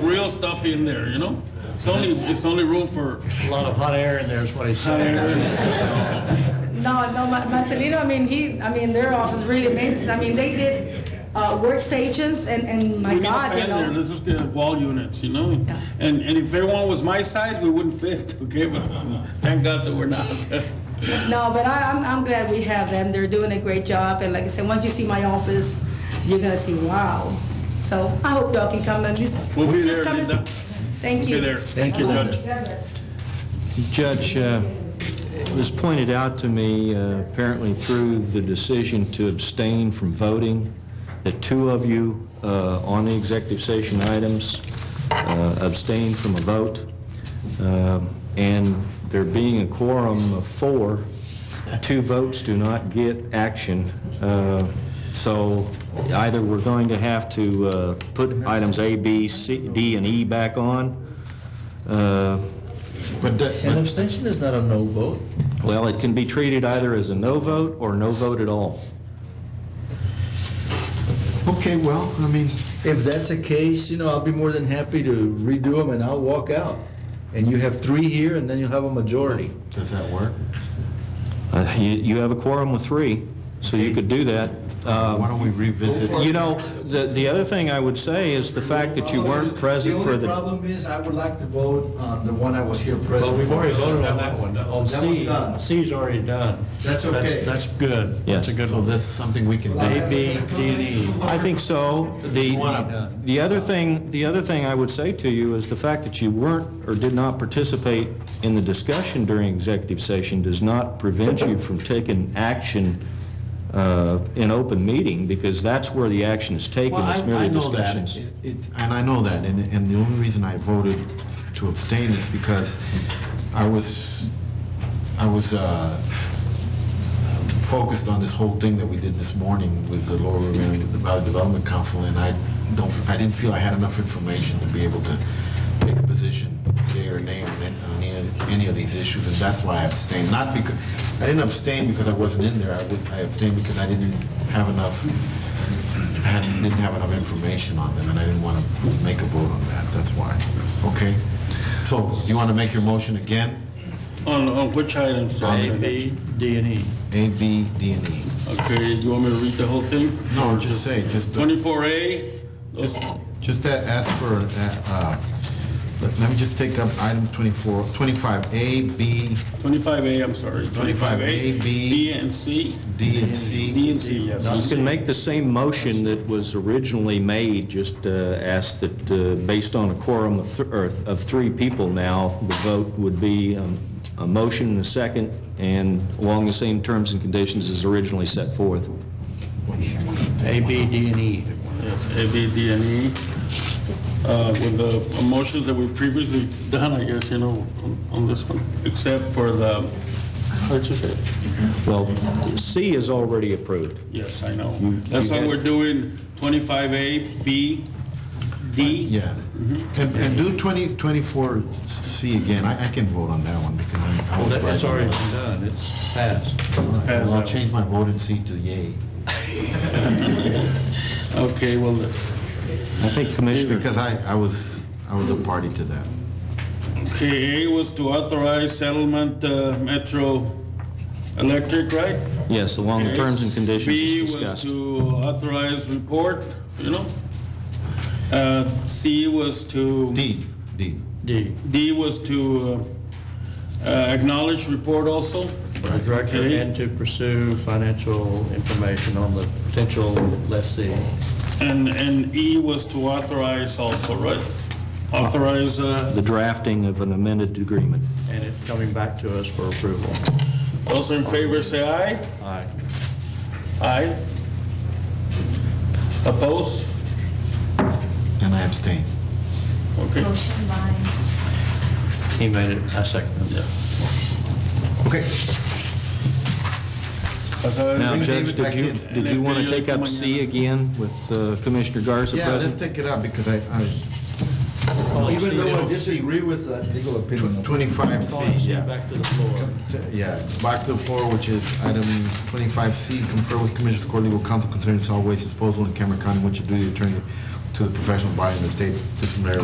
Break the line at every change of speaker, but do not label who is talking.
real stuff in there, you know? It's only, it's only room for
A lot of hot air in there is what he's
hot
saying.
air.
No, no, Ma- Marcelino, I mean, he, I mean, their office really amazing. I mean, they did uh, workstations and, and my
We need a
God, you
fan there,
know.
let's just get wall units, you know? And, and if everyone was my size, we wouldn't fit, okay? But thank God that we're not.
No, but I, I'm, I'm glad we have them. They're doing a great job. And like I said, once you see my office, you're gonna see, wow. So I hope y'all can come and just.
We'll be
just
there,
come and-
Linda.
Thank you.
Okay, there.
Thank you, Linda.
Judge.
Judge, uh, it was pointed out to me, uh, apparently through the decision to abstain from voting, that two of you uh, on the executive session items uh, abstained from a vote, Um, and there being a quorum of four, two votes do not get action. Uh, So either we're going to have to uh, put items A, B, C, D, and E back on, uh,
But the-
An abstention is not a no vote.
well, it can be treated either as a no vote or no vote at all.
Okay, well, I mean,
If that's the case, you know, I'll be more than happy to redo them and I'll walk out. And you have three here and then you'll have a majority.
does that work?
Uh, You you have a quorum with three, so you could do that.
Uh, Why
Um,
don't we revisit?
You know, the the other thing I would say is the fact that you weren't present for
The only
the...
problem is I would like to vote on the one I was here present.
We've
for.
already voted on that one. On
That
C,
was done.
C's already done.
That's okay.
That's good.
Yes.
That's a good one. So that's something we can do. A, B, D, and E.
I think so. The the other thing, the other thing I would say to you is the fact that you weren't or did not participate in the discussion during executive session does not prevent you from taking action uh, in open meeting, because that's where the action is taken.
Well,
It's
I-
merely
I know that.
discussions.
It- it- And I know that, and, and the only reason I voted to abstain is because I was, I was uh, focused on this whole thing that we did this morning with the Lower River Valley Development Council, and I don't, I didn't feel I had enough information to be able to take a position, yea or nay, on any- on any, any of these issues, and that's why I abstained. Not because, I didn't abstain because I wasn't in there, I was- I abstained because I didn't have enough had, didn't have enough information on them, and I didn't want to make a vote on that, that's why. Okay? So, you want to make your motion again?
On, on which items, Judge?
A, B, D, and E.
A, B, D, and E.
Okay, you want me to read the whole thing?
No, just say, just, uh,
Twenty-four A, those,
just a- ask for, uh, uh, let let me just take up items 24, 25A, B,
twenty-five A, I'm sorry.
25A, B,
D and C,
D, and C.
D and C, yes.
You can make the same motion that was originally made, just uh, ask that, uh, based on a quorum of th- or of three people now, the vote would be um, a motion and a second, and along the same terms and conditions as originally set forth.
A, B, D, and E.
Yes, A, B, D, and E. Uh, With the motions that we previously done, I guess, you know, on- on this one, except for the, how'd you say? it?
Well, C is already approved.
Yes, I know.
You-
That's
Mm-hmm. you
why
had-
we're doing 25A, B, D.
Uh,
Yeah.
Mm-hmm.
And, and do 20, 24C again, I, I can vote on that one, because I I was right.
It's already been done, it's passed.
Well, I'll change my vote in C to yay.
Okay, well,
I think Commissioner,
Because I, I was, I was a party to that.
okay, A was to authorize settlement uh, Metro Electric, right?
yes, along the
Okay.
terms and
B
conditions as
was
discussed.
to authorize report, you know? Uh, C was to...
D, D.
D.
D was to uh, uh, acknowledge report also.
The director
Okay.
and to pursue financial information on the potential lessee.
And, and E was to authorize also, right? Authorize, uh,
The drafting of an amended agreement.
And it's coming back to us for approval.
those in favor say aye.
Aye.
Aye. Oppose?
And I abstain.
Okay.
Motion by
He made it, I second it.
Yeah.
Okay.
Now,
Bring David
Judge, did
back
you,
in.
did you want to take up C again with uh, Commissioner Garza
Yeah, let's
present?
take it out because I, I,
Even though I disagree with that legal opinion.
twenty-five C, yeah.
Back to the floor.
Yeah, back to the floor, which is item twenty-five C, confer with Commissioners Court Legal Counsel concerning solid waste disposal in Cameron County, which your duty attorney to the professional body in the state disciplinary